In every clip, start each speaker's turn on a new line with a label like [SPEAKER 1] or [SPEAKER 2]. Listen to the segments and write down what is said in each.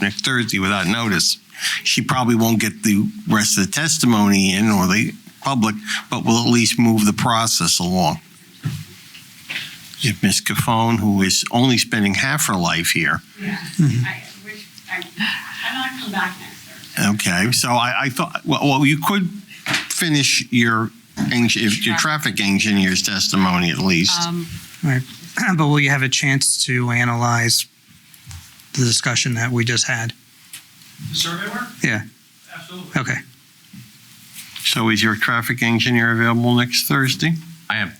[SPEAKER 1] next Thursday without notice. She probably won't get the rest of the testimony in or the public, but will at least move the process along. If Ms. Caphone, who is only spending half her life here,
[SPEAKER 2] Yeah,
[SPEAKER 3] Mm-hmm.
[SPEAKER 2] I wish, I, I'm not come back next Thursday.
[SPEAKER 1] okay, so I, I thought, well, well, you could finish your, eng- if your traffic engineer's testimony at least.
[SPEAKER 4] Right. But will you have a chance to analyze the discussion that we just had?
[SPEAKER 5] The survey work?
[SPEAKER 4] Yeah,
[SPEAKER 5] Absolutely.
[SPEAKER 4] okay.
[SPEAKER 1] So is your traffic engineer available next Thursday?
[SPEAKER 6] I am.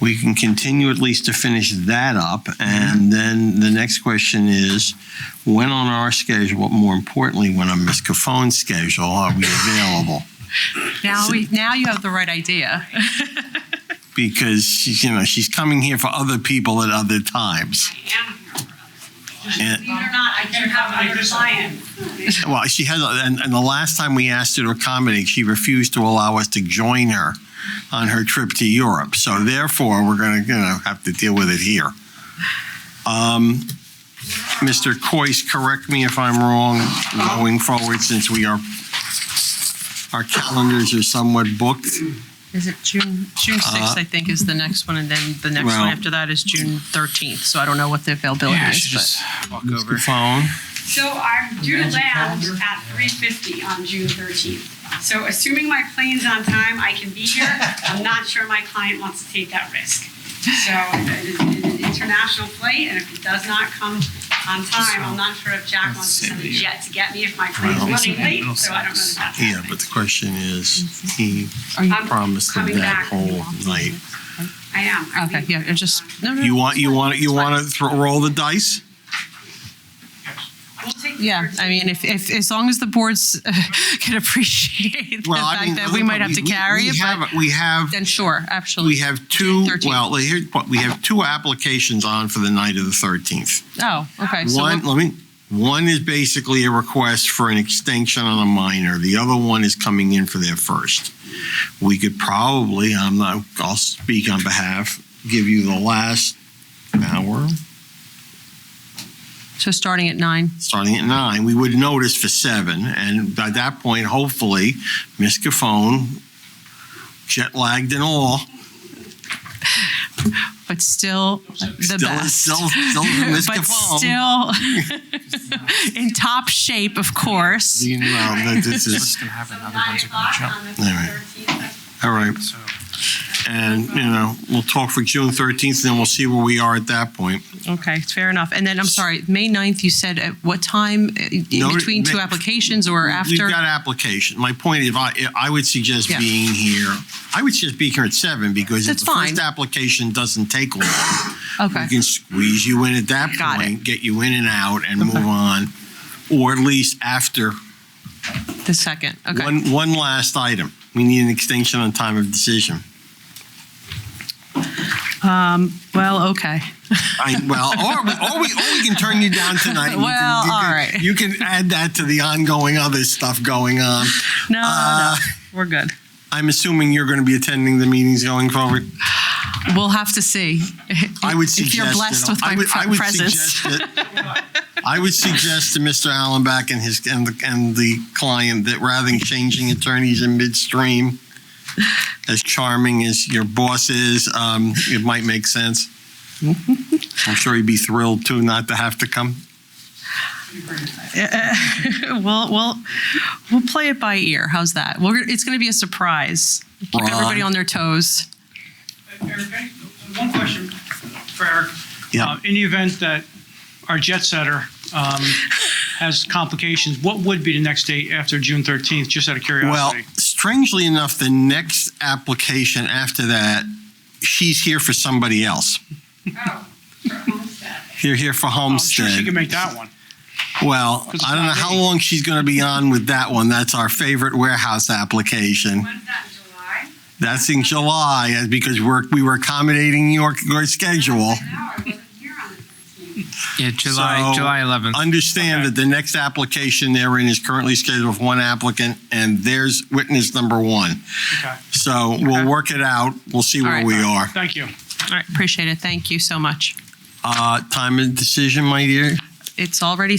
[SPEAKER 1] we can continue at least to finish that up. And then the next question is, when on our schedule, more importantly, when on Ms. Caffone's schedule, are we available?
[SPEAKER 3] Now we, now you have the right idea.
[SPEAKER 1] Because she's, you know, she's coming here for other people at other times.
[SPEAKER 2] I am here for other
[SPEAKER 1] Yeah.
[SPEAKER 2] people. Believe it or not, I do have other clients.
[SPEAKER 1] Well, she has, and, and the last time we asked her to accommodate, she refused to allow us to join her on her trip to Europe. So therefore, we're going to, you know, have to deal with it here. Um, Mr. Coyce, correct me if I'm wrong going forward, since we are, our calendars are somewhat booked.
[SPEAKER 3] Is it June, June 6th, I think, is the next one, and then the next
[SPEAKER 1] Uh, well-
[SPEAKER 3] one after that is June 13th, so I don't know what the availability
[SPEAKER 6] Yeah, I
[SPEAKER 3] is,
[SPEAKER 6] should
[SPEAKER 3] but.
[SPEAKER 6] just walk over.
[SPEAKER 1] Phone.
[SPEAKER 2] So I'm due to land at three fifty on June thirteenth. So assuming my plane's on time, I can be here. I'm not sure my client wants to take that risk. So uh, it is an international flight, and if it does not come on time, I'm not sure if Jack wants to send a jet to get me if my plane's
[SPEAKER 1] Well,
[SPEAKER 2] running late, so I don't know if that's
[SPEAKER 1] Yeah,
[SPEAKER 2] happening.
[SPEAKER 1] but the question is, he
[SPEAKER 2] I'm
[SPEAKER 1] promised them
[SPEAKER 2] coming
[SPEAKER 1] that
[SPEAKER 2] back.
[SPEAKER 1] whole night.
[SPEAKER 2] I am. I
[SPEAKER 3] Okay,
[SPEAKER 2] leave-
[SPEAKER 3] yeah, it just, no, no.
[SPEAKER 1] You
[SPEAKER 3] no,
[SPEAKER 1] want, you want, you want to roll the dice?
[SPEAKER 2] We'll take the
[SPEAKER 3] Yeah,
[SPEAKER 2] first
[SPEAKER 3] I mean, if, if, as long as the boards uh, can appreciate the
[SPEAKER 1] Well, I mean,
[SPEAKER 3] fact that we might have to
[SPEAKER 1] we-
[SPEAKER 3] carry
[SPEAKER 1] we
[SPEAKER 3] it, but
[SPEAKER 1] have- We have,
[SPEAKER 3] then sure, absolutely.
[SPEAKER 1] we have two,
[SPEAKER 3] 13th.
[SPEAKER 1] well, here, we have two applications on for the night of the 13th.
[SPEAKER 3] Oh, okay, so,
[SPEAKER 1] One,
[SPEAKER 3] we'll-
[SPEAKER 1] let me, one is basically a request for an extension on a minor. The other one is coming in for their first. We could probably, I'm not, I'll speak on behalf, give you the last hour,
[SPEAKER 3] so starting at nine.
[SPEAKER 1] starting at nine. We would notice for seven, and by that point, hopefully, Ms. Caphone, jet lagged and all,
[SPEAKER 3] but still the
[SPEAKER 1] Still-
[SPEAKER 3] best.
[SPEAKER 1] still- still the Miss
[SPEAKER 3] but
[SPEAKER 1] Cavall.
[SPEAKER 3] still in top shape, of course.
[SPEAKER 1] You know, that
[SPEAKER 6] What's
[SPEAKER 1] this is,
[SPEAKER 6] going to happen?
[SPEAKER 2] So
[SPEAKER 6] Other
[SPEAKER 2] nine
[SPEAKER 6] ones are going
[SPEAKER 2] o'clock
[SPEAKER 6] to jump.
[SPEAKER 2] on the
[SPEAKER 1] All right.
[SPEAKER 2] thirteenth.
[SPEAKER 1] all right.
[SPEAKER 6] So
[SPEAKER 1] And, you know, we'll talk for June 13th, and then we'll see where we are at that point.
[SPEAKER 3] Okay, fair enough. And then I'm sorry, May 9th, you said at what time Uh, in
[SPEAKER 1] No,
[SPEAKER 3] between two
[SPEAKER 1] May-
[SPEAKER 3] applications or
[SPEAKER 1] We've
[SPEAKER 3] after?
[SPEAKER 1] got application. My point, if I, I would suggest
[SPEAKER 3] Yeah.
[SPEAKER 1] being here, I would suggest being here at seven because if
[SPEAKER 3] That's
[SPEAKER 1] the first
[SPEAKER 3] fine.
[SPEAKER 1] application doesn't take long, we
[SPEAKER 3] okay.
[SPEAKER 1] can squeeze you in at that
[SPEAKER 3] Got it.
[SPEAKER 1] point, get you in and out and move
[SPEAKER 3] Okay.
[SPEAKER 1] on. Or at least after
[SPEAKER 3] The second. Okay.
[SPEAKER 1] one, one last item. We need an extension on time of decision.
[SPEAKER 3] well, okay.
[SPEAKER 1] I, well, or we, or we, or we can turn you down tonight. and you
[SPEAKER 3] Well,
[SPEAKER 1] can, you
[SPEAKER 3] all
[SPEAKER 1] can,
[SPEAKER 3] right.
[SPEAKER 1] You can add that to the ongoing other stuff going on.
[SPEAKER 3] No,
[SPEAKER 1] Uh,
[SPEAKER 3] no, we're good.
[SPEAKER 1] I'm assuming you're going to be attending the meetings going forward.
[SPEAKER 3] We'll have to see.
[SPEAKER 1] I would
[SPEAKER 3] If
[SPEAKER 1] suggest
[SPEAKER 3] you're blessed
[SPEAKER 1] that,
[SPEAKER 3] with my
[SPEAKER 1] I would, I
[SPEAKER 3] pre-
[SPEAKER 1] would
[SPEAKER 3] presence.
[SPEAKER 1] suggest that. I would suggest to Mr. Allenback and his and the, and the client that rather than changing attorneys in midstream, as charming as your boss is, um, it might make sense. I'm sure he'd be thrilled too not to have to come.
[SPEAKER 3] we'll we'll we'll play it by ear. How's that? We're gonna, it's going to be a surprise. Keep
[SPEAKER 1] Ron.
[SPEAKER 3] everybody on their toes.
[SPEAKER 5] Uh, Eric, I- one question for Eric.
[SPEAKER 1] Yeah.
[SPEAKER 5] Uh, In the event that our jet setter um, has complications, what would be the next date after June 13th, just out of
[SPEAKER 1] Well,
[SPEAKER 5] curiosity?
[SPEAKER 1] strangely enough, the next application after that, she's here for somebody else.
[SPEAKER 2] Oh, for Homestead.
[SPEAKER 1] You're here for
[SPEAKER 5] I'm sure she
[SPEAKER 1] Homestead.
[SPEAKER 5] can make that one.
[SPEAKER 1] Well,
[SPEAKER 5] Because it's
[SPEAKER 1] I don't know
[SPEAKER 5] not
[SPEAKER 1] how
[SPEAKER 5] me.
[SPEAKER 1] long she's going to be on with that one. That's our favorite warehouse application.
[SPEAKER 2] When's that, in July?
[SPEAKER 1] That's in July uh, because we're, we were accommodating your, your schedule.
[SPEAKER 2] No, I wasn't here on the 13th.
[SPEAKER 6] yeah, July
[SPEAKER 1] So-
[SPEAKER 6] July 11th.
[SPEAKER 1] Understand that the next application they're in is currently scheduled for one applicant and there's witness number one.
[SPEAKER 5] Okay,
[SPEAKER 1] So we'll work it out. We'll see where
[SPEAKER 3] right.
[SPEAKER 1] we are.
[SPEAKER 5] thank you.
[SPEAKER 3] All right, appreciate it. Thank you so much.
[SPEAKER 1] Uh, time of decision, my dear?
[SPEAKER 3] It's already